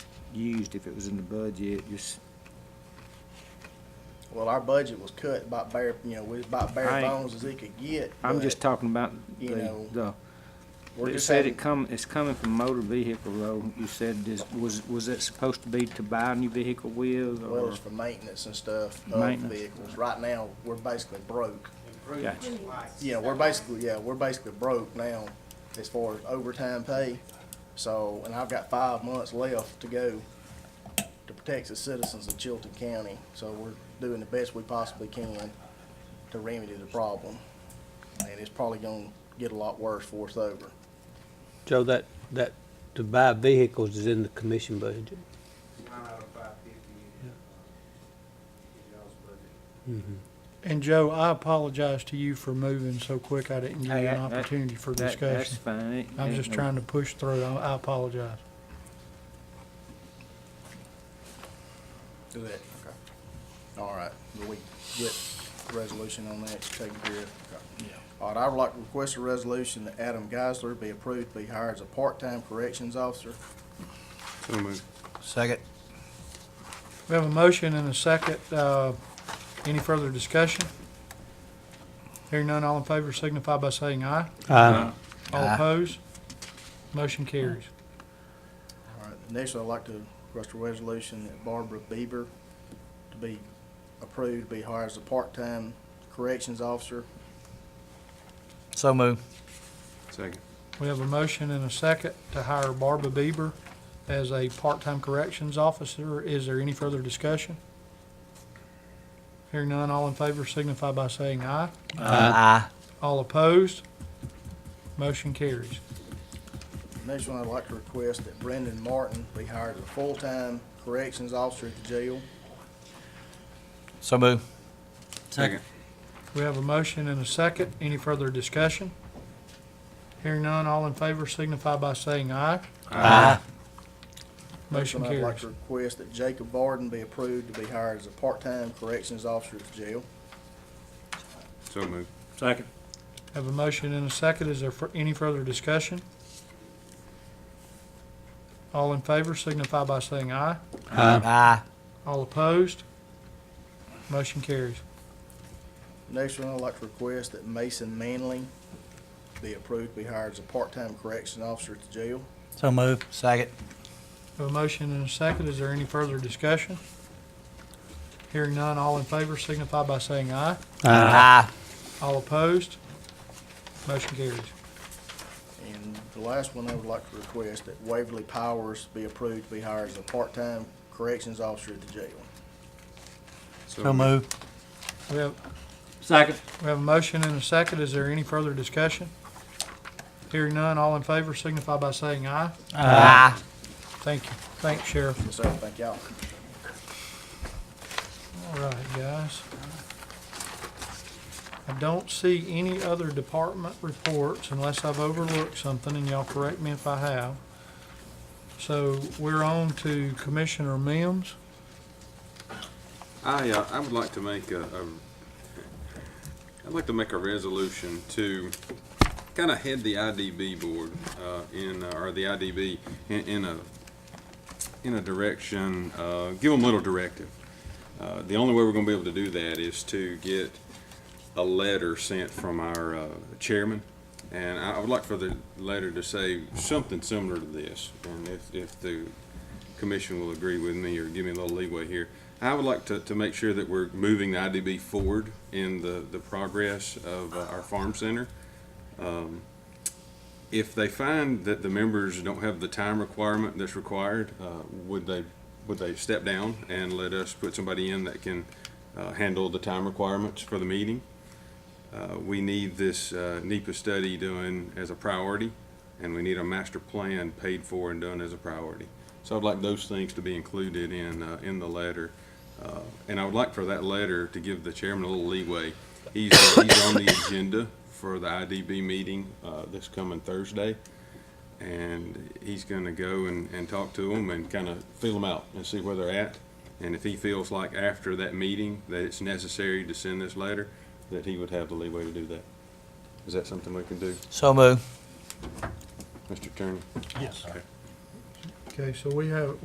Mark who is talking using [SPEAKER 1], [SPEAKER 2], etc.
[SPEAKER 1] used if it was in the budget, just,
[SPEAKER 2] Well, our budget was cut about bare, you know, we was about bare
[SPEAKER 1] I-
[SPEAKER 2] bones as it could get.
[SPEAKER 1] I'm
[SPEAKER 2] but
[SPEAKER 1] just talking about
[SPEAKER 2] you
[SPEAKER 1] the,
[SPEAKER 2] know,
[SPEAKER 1] the,
[SPEAKER 2] we're
[SPEAKER 1] it
[SPEAKER 2] just
[SPEAKER 1] said
[SPEAKER 2] having-
[SPEAKER 1] it come, it's coming from motor vehicle though. You said this, was, was it supposed to be to buy a new vehicle with
[SPEAKER 2] Well,
[SPEAKER 1] or?
[SPEAKER 2] it's for maintenance and stuff of
[SPEAKER 1] Maintenance.
[SPEAKER 2] vehicles. Right now, we're basically broke.
[SPEAKER 1] Gotcha.
[SPEAKER 2] You know, we're basically, yeah, we're basically broke now as far as overtime pay. So, and I've got five months left to go to protect the citizens of Chilton County. So we're doing the best we possibly can to remedy the problem. And it's probably gonna get a lot worse for us over.
[SPEAKER 3] Joe, that, that, to buy vehicles is in the commission budget.
[SPEAKER 4] Nine out of five fifty is, uh, is y'all's budget.
[SPEAKER 5] And Joe, I apologize to you for moving so quick. I didn't give you
[SPEAKER 1] Hey,
[SPEAKER 5] an
[SPEAKER 1] that- that-
[SPEAKER 5] opportunity for
[SPEAKER 1] That, that's
[SPEAKER 5] discussion.
[SPEAKER 1] fine. It
[SPEAKER 5] I'm
[SPEAKER 1] ain't
[SPEAKER 5] just
[SPEAKER 1] no-
[SPEAKER 5] trying to push through. I I apologize.
[SPEAKER 2] Do that. Okay. All right, Will we get resolution on that taken care of. Yeah. All right, I would like to request a resolution that Adam Geisler be approved to be hired as a part-time corrections officer.
[SPEAKER 6] Second.
[SPEAKER 5] We have a motion and a second. Uh, Any further discussion? Hearing none, all in favor signify by saying aye.
[SPEAKER 3] Uh,
[SPEAKER 5] All
[SPEAKER 6] Aye.
[SPEAKER 5] opposed? Motion carries.
[SPEAKER 2] All right, next I'd like to request a resolution that Barbara Bieber to be approved to be hired as a part-time corrections officer.
[SPEAKER 6] So move.
[SPEAKER 5] We have a motion and a second to hire Barbara Bieber as a part-time corrections officer. Is there any further discussion? Hearing none, all in favor signify by saying aye.
[SPEAKER 6] Uh, Aye.
[SPEAKER 5] All opposed? Motion carries.
[SPEAKER 2] Next one, I'd like to request that Brendan Martin be hired as a full-time corrections officer at the jail.
[SPEAKER 6] So move.
[SPEAKER 5] We have a motion and a second. Any further discussion? Hearing none, all in favor signify by saying aye.
[SPEAKER 6] Aye.
[SPEAKER 2] Next
[SPEAKER 5] Motion
[SPEAKER 2] one, I'd like
[SPEAKER 5] carries.
[SPEAKER 2] to request that Jacob Barden be approved to be hired as a part-time corrections officer at the jail.
[SPEAKER 7] So moved.
[SPEAKER 1] Second.
[SPEAKER 5] Have a motion and a second. Is there fur- any further discussion? All in favor signify by saying aye.
[SPEAKER 6] Aye.
[SPEAKER 5] All opposed? Motion carries.
[SPEAKER 2] Next one, I'd like to request that Mason Manley be approved to be hired as a part-time corrections officer at the jail.
[SPEAKER 6] So move. Second.
[SPEAKER 5] Have a motion and a second. Is there any further discussion? Hearing none, all in favor signify by saying aye.
[SPEAKER 6] Aye.
[SPEAKER 5] All opposed? Motion carries.
[SPEAKER 2] And the last one, I would like to request that Waverly Powers be approved to be hired as a part-time corrections officer at the jail.
[SPEAKER 6] So move.
[SPEAKER 5] We have,
[SPEAKER 1] Second.
[SPEAKER 5] we have a motion and a second. Is there any further discussion? Hearing none, all in favor signify by saying aye.
[SPEAKER 6] Aye.
[SPEAKER 5] Thank you. Thanks, Sheriff.
[SPEAKER 2] So, thank y'all.
[SPEAKER 5] All right, guys. I don't see any other department reports unless I've overlooked something, and y'all correct me if I have. So we're on to Commissioner Mims.
[SPEAKER 7] I, uh, I would like to make a, a, I'd like to make a resolution to kind of head the IDB board, uh, in, uh, or the IDB in, in a, in a direction, uh, give them a little directive. Uh, the only way we're gonna be able to do that is to get a letter sent from our, uh, chairman. And I I would like for the letter to say something similar to this. And if, if the commission will agree with me or give me a little leeway here. I would like to, to make sure that we're moving the IDB forward in the, the progress of uh, our farm center. Um, If they find that the members don't have the time requirement that's required, uh, would they, would they step down and let us put somebody in that can uh, handle the time requirements for the meeting? Uh, We need this uh, NEPA study done as a priority, and we need a master plan paid for and done as a priority. So I'd like those things to be included in, uh, in the letter. Uh, And I would like for that letter to give the chairman a little leeway. He's, uh, he's on the agenda for the IDB meeting, uh, this coming Thursday. And he's gonna go and, and talk to them and kind of feel them out and see where they're at. And if he feels like after that meeting that it's necessary to send this letter, that he would have the leeway to do that. Is that something we can do,
[SPEAKER 6] So move.
[SPEAKER 7] Mr. Attorney?
[SPEAKER 5] Yes. Okay, so we have,